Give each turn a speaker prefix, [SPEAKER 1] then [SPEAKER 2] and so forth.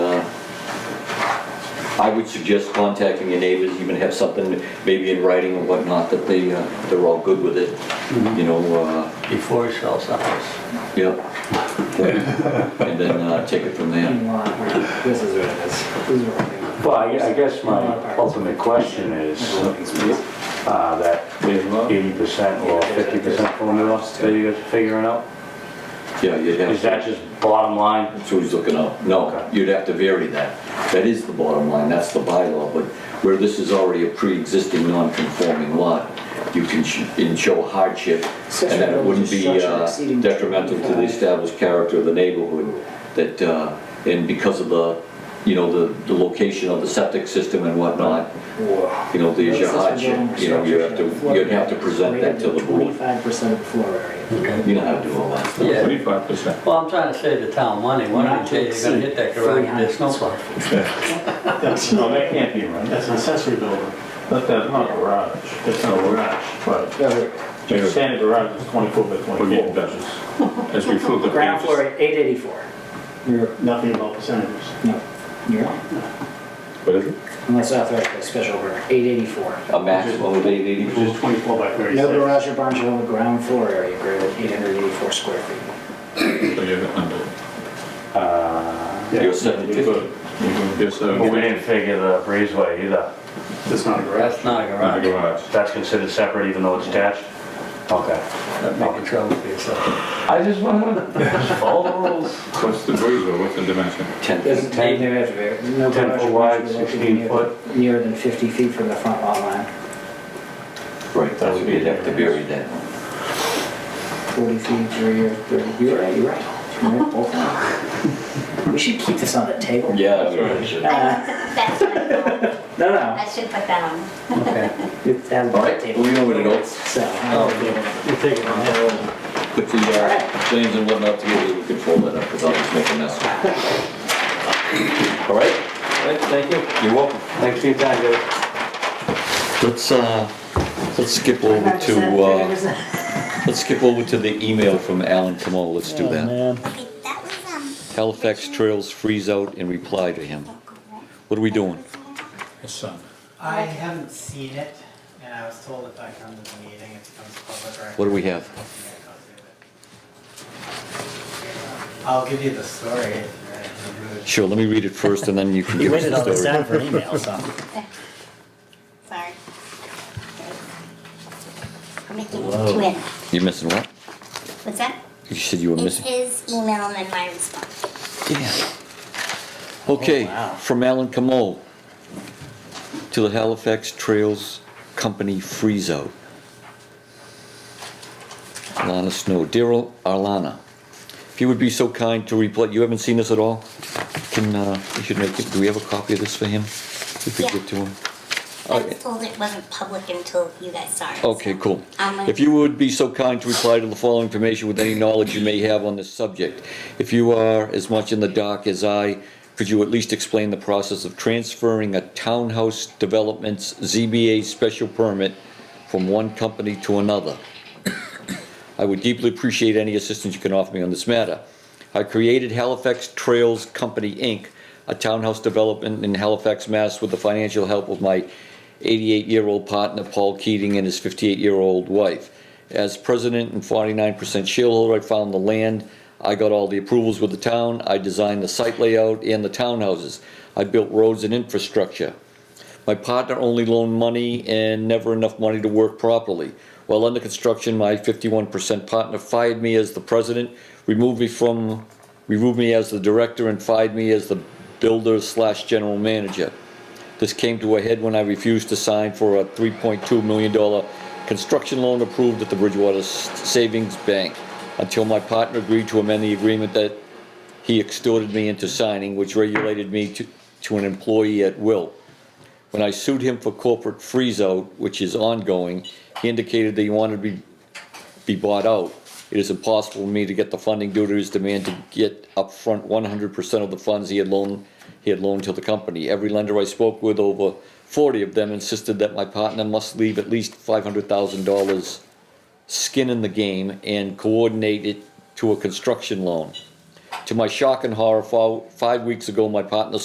[SPEAKER 1] I would suggest contacting your neighbors, even have something maybe in writing and whatnot, that they, uh, they're all good with it, you know, uh,
[SPEAKER 2] before he sells the house.
[SPEAKER 1] yeah. And then uh, take it from there.
[SPEAKER 3] This is what it is. This is what it is.
[SPEAKER 4] Well, I I guess my ultimate question is uh, that eighty percent or fifty percent formula that you guys are figuring out?
[SPEAKER 1] Yeah, you'd have.
[SPEAKER 4] Is that just bottom line?
[SPEAKER 1] That's what he's looking up. No,
[SPEAKER 4] Okay.
[SPEAKER 1] you'd have to vary that. That is the bottom line, that's the bylaw, but where this is already a pre-existing non-conforming lot, you can, sh- and show hardship, and that it wouldn't be uh, detrimental to the established character of the neighborhood, that, uh, and because of the, you know, the, the location of the septic system and whatnot,
[SPEAKER 3] Whoa.
[SPEAKER 1] you know, there's your hardship, you know, you have to, you'd have to present that to the board.
[SPEAKER 3] Twenty-five percent of the floor area.
[SPEAKER 1] You know how to do all that stuff.
[SPEAKER 2] Yeah,
[SPEAKER 5] Twenty-five percent.
[SPEAKER 2] well, I'm trying to save the town money, why don't you, you're gonna hit that garage, there's no
[SPEAKER 5] That's, no, that can't be right. That's an accessory building. But that's not a garage. That's not a garage, but your standard garage is twenty-four by twenty-four. As we flip the
[SPEAKER 3] Ground floor, eight eighty-four. You're,
[SPEAKER 5] Nothing about percentages.
[SPEAKER 3] no, you're on.
[SPEAKER 5] What is it?
[SPEAKER 3] Unless authorized by special order, eight eighty-four.
[SPEAKER 1] A maximum of eight eighty-four.
[SPEAKER 5] Which is twenty-four by
[SPEAKER 3] No
[SPEAKER 5] thirty-six.
[SPEAKER 3] garage or barn shall have a ground floor area greater than eight hundred eighty-four square feet.
[SPEAKER 4] Uh,
[SPEAKER 1] You're seven fifty.
[SPEAKER 4] But we didn't figure the breezeway either.
[SPEAKER 5] That's not a
[SPEAKER 2] that's not a garage.
[SPEAKER 4] That's considered separate even though it's attached? Okay.
[SPEAKER 2] That'd make a trouble for yourself.
[SPEAKER 4] I just wanna follow the rules.
[SPEAKER 6] What's the breeze or what's the dimension?
[SPEAKER 1] Ten.
[SPEAKER 3] There's,
[SPEAKER 4] Ten-
[SPEAKER 3] there has to be, no
[SPEAKER 4] ten
[SPEAKER 3] garage
[SPEAKER 4] foot
[SPEAKER 3] or
[SPEAKER 4] wide,
[SPEAKER 3] barn shall be
[SPEAKER 4] 16
[SPEAKER 3] located
[SPEAKER 4] foot.
[SPEAKER 3] near- nearer than fifty feet from the front lot line,
[SPEAKER 1] Right, that would be, you'd have to bury that.
[SPEAKER 3] forty feet, three or thirty, you're right, you're right. You're right, both of them. We should keep this on the table. Uh,
[SPEAKER 1] Yeah.
[SPEAKER 7] That's what I thought.
[SPEAKER 3] No, no,
[SPEAKER 7] I should put that on.
[SPEAKER 2] Okay.
[SPEAKER 3] it has a
[SPEAKER 1] All right, Oh.
[SPEAKER 3] table,
[SPEAKER 1] well, you know what it is.
[SPEAKER 3] so. I don't think-
[SPEAKER 2] You take it on that.
[SPEAKER 1] Put the uh, plans and whatnot together, we can fold that up, because I'll just make a mess. All right? Thank you. You're welcome.
[SPEAKER 4] Thanks for your time, guys.
[SPEAKER 1] Let's, uh, let's skip over to, uh, let's skip over to the email from Alan Kamal, let's do that.
[SPEAKER 7] Okay, that was, um.
[SPEAKER 1] Halifax Trails freeze out and reply to him. What are we doing?
[SPEAKER 5] His son.
[SPEAKER 8] I haven't seen it, and I was told if I come to the meeting, it becomes public record.
[SPEAKER 1] What do we have?
[SPEAKER 8] I'll give you the story if you're in the mood.
[SPEAKER 1] Sure, let me read it first, and then you can
[SPEAKER 8] You
[SPEAKER 1] give us
[SPEAKER 8] waited all
[SPEAKER 1] the
[SPEAKER 8] this
[SPEAKER 1] story.
[SPEAKER 8] time for an email, so.
[SPEAKER 7] Sorry. I'm making it twin.
[SPEAKER 1] You're missing what?
[SPEAKER 7] What's that?
[SPEAKER 1] You said you were
[SPEAKER 7] It's
[SPEAKER 1] missing?
[SPEAKER 7] his email and my response.
[SPEAKER 1] Damn. Okay,
[SPEAKER 8] wow.
[SPEAKER 1] from Alan Camol to the Halifax Trails Company Freeze Out. Alana Snow, dear Al- Alana, if you would be so kind to reply, you haven't seen this at all? Can, uh, you should make, it- do we have a copy of this for him? If we
[SPEAKER 7] Yeah.
[SPEAKER 1] give to him?
[SPEAKER 7] I
[SPEAKER 1] Oh,
[SPEAKER 7] was told it wasn't public until you guys saw it.
[SPEAKER 1] Okay, cool.
[SPEAKER 7] I'm gonna-
[SPEAKER 1] If you would be so kind to reply to the following information with any knowledge you may have on this subject. If you are as much in the dark as I, could you at least explain the process of transferring a townhouse development's ZBA special permit from one company to another? I would deeply appreciate any assistance you can offer me on this matter. I created Halifax Trails Company, Inc., a townhouse development in Halifax, Mass. with the financial help of my 88-year-old partner, Paul Keating, and his 58-year-old wife. As president and 49% shareholder, I found the land, I got all the approvals with the town, I designed the site layout and the townhouses. I built roads and infrastructure. My partner only loaned money and never enough money to work properly. While under construction, my fifty-one percent partner fired me as the president, removed me from, removed me as the director, and fired me as the builder slash general manager. This came to a head when I refused to sign for a three point two million dollar construction loan approved at the Bridgewater S- Savings Bank until my partner agreed to amend the agreement that he extorted me into signing, which regulated me to, to an employee at will. When I sued him for corporate freeze-out, which is ongoing, he indicated that he wanted to be, be bought out. It is impossible for me to get the funding due to his demand to get upfront one hundred percent of the funds he had loaned, he had loaned to the company. Every lender I spoke with, over forty of them insisted that my partner must leave at least five hundred thousand dollars skin in the game and coordinate it to a construction loan. To my shock and horror, fo- five weeks ago, my partner